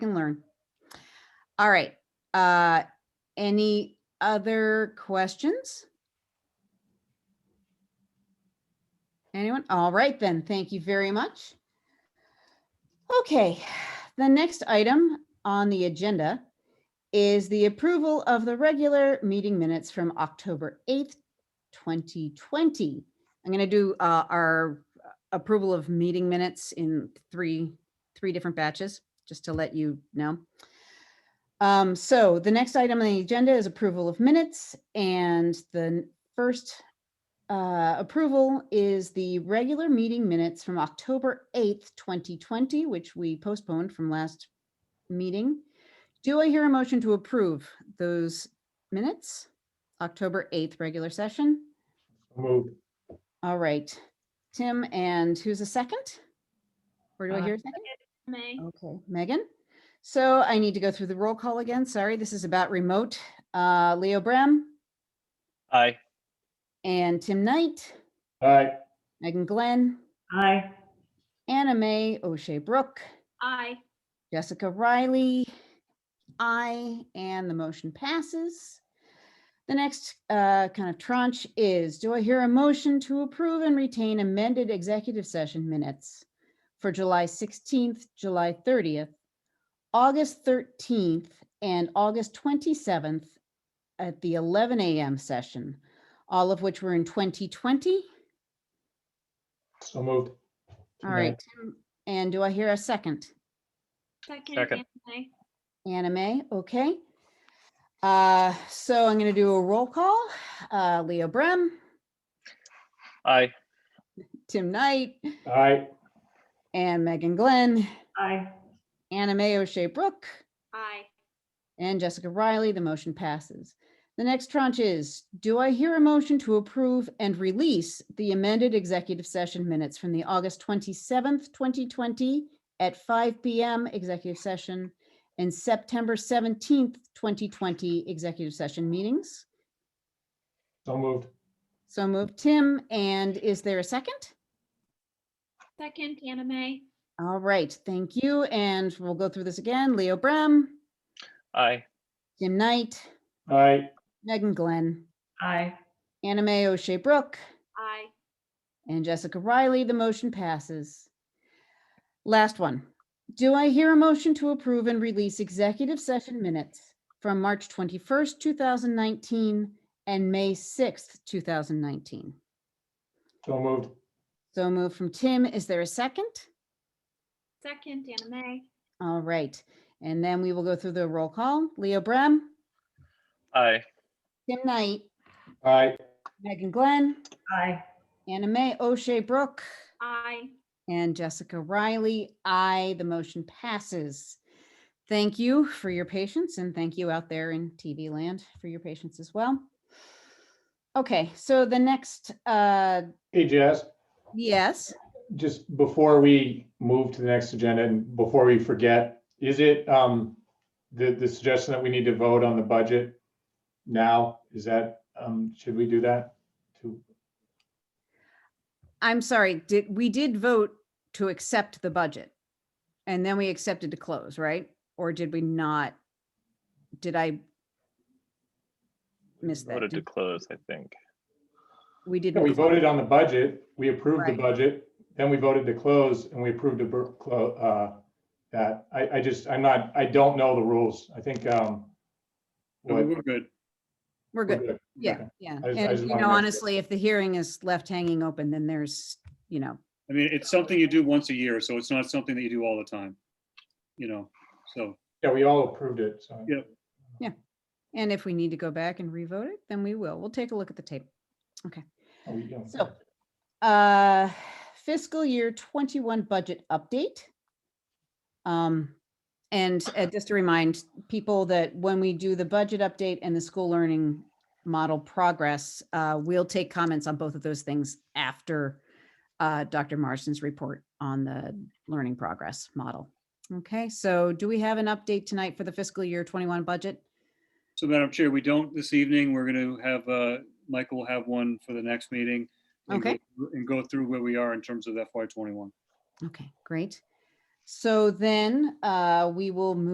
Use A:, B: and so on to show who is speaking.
A: can learn. All right, uh, any other questions? Anyone? All right then, thank you very much. Okay, the next item on the agenda is the approval of the regular meeting minutes from October 8th, 2020. I'm going to do uh, our approval of meeting minutes in three, three different batches, just to let you know. Um, So the next item on the agenda is approval of minutes, and the first uh, approval is the regular meeting minutes from October 8th, 2020, which we postponed from last meeting. Do I hear a motion to approve those minutes? October 8th, regular session?
B: Move.
A: All right, Tim, and who's a second? Or do I
C: Uh,
A: hear a second?
D: May.
A: Okay, Megan? So I need to go through the roll call again. Sorry, this is about remote. Uh, Leo Brem
C: Aye.
A: and Tim Knight,
B: Aye.
A: Megan Glenn,
E: Aye.
A: Anna Mae O'Shea Brooke,
D: Aye.
A: Jessica Riley, aye, and the motion passes. The next uh, kind of tranche is, do I hear a motion to approve and retain amended executive session minutes for July 16th, July 30th, August 13th, and August 27th at the 11 a.m. session, all of which were in 2020?
B: So moved.
A: All right, Tim, and do I hear a second?
C: Second.
D: Second. May.
A: Anime, okay. Uh, so I'm gonna do a roll call. Uh, Leo Brem,
C: Aye.
A: Tim Knight,
B: Aye.
A: and Megan Glenn,
E: Aye.
A: Anime O'Shea Brooke,
D: Aye.
A: and Jessica Riley. The motion passes. The next tranche is, do I hear a motion to approve and release the amended executive session minutes from the August 27th, 2020 at 5 PM executive session and September 17th, 2020 executive session meetings?
B: So moved.
A: So moved, Tim, and is there a second?
D: Second, Anna May.
A: All right, thank you, and we'll go through this again. Leo Brem,
C: Aye.
A: Jim Knight,
B: Aye.
A: Megan Glenn,
E: Aye.
A: Anna Mae O'Shea Brooke,
D: Aye.
A: and Jessica Riley. The motion passes. Last one. Do I hear a motion to approve and release executive session minutes from March 21st, 2019 and May 6th, 2019?
B: So moved.
A: So moved from Tim. Is there a second?
D: Second, Anna May.
A: All right, and then we will go through the roll call. Leo Brem,
C: Aye.
A: Tim Knight,
B: Aye.
A: Megan Glenn,
E: Aye.
A: Anna Mae O'Shea Brooke,
D: Aye.
A: and Jessica Riley. Aye, the motion passes. Thank you for your patience and thank you out there in TV land for your patience as well. Okay, so the next, uh,
B: Hey, Jess,
A: yes,
B: just before we move to the next agenda and before we forget, is it um the the suggestion that we need to vote on the budget now? Is that um should we do that? To
A: I'm sorry, did, we did vote to accept the budget. And then we accepted to close, right? Or did we not? Did I miss that?
C: Voted to
A: Did-
C: close, I think.
A: We
B: Yeah,
A: didn't.
B: we
A: close.
B: voted on the budget, we approved the
A: Right.
B: budget, then we voted to close and we approved to bur- clo- uh that. I I just, I'm not, I don't know the rules. I think um
F: No,
B: what-
F: We're good.
A: We're
B: we're
A: good.
B: good.
A: Yeah,
B: Okay.
A: yeah.
B: I just- I
A: And,
B: just
A: you
B: wanna
A: know,
B: make sure.
A: honestly, if the hearing is left hanging open, then there's, you know,
F: I mean, it's something you do once a year, so it's not something that you do all the time. You know, so,
B: Yeah, we all approved it, so.
F: Yeah.
A: and if we need to go back and revote it, then we will. We'll take a look at the tape.
B: Oh, we- yeah.
A: So, uh, fiscal year twenty-one budget update. Um, and uh, just to remind people that when we do the budget update and the school learning model progress, uh, we'll take comments on both of those things after uh, Dr. Marston's report on the learning progress model. Okay, so do we have an update tonight for the fiscal year twenty-one budget?
F: so Madam Chair, we don't this evening. We're going to have, uh, Michael will have one for the next meeting. and go
A: Okay.
F: through- And go through where we are in terms of FY twenty-one.
A: Okay, great. So then, uh, we will move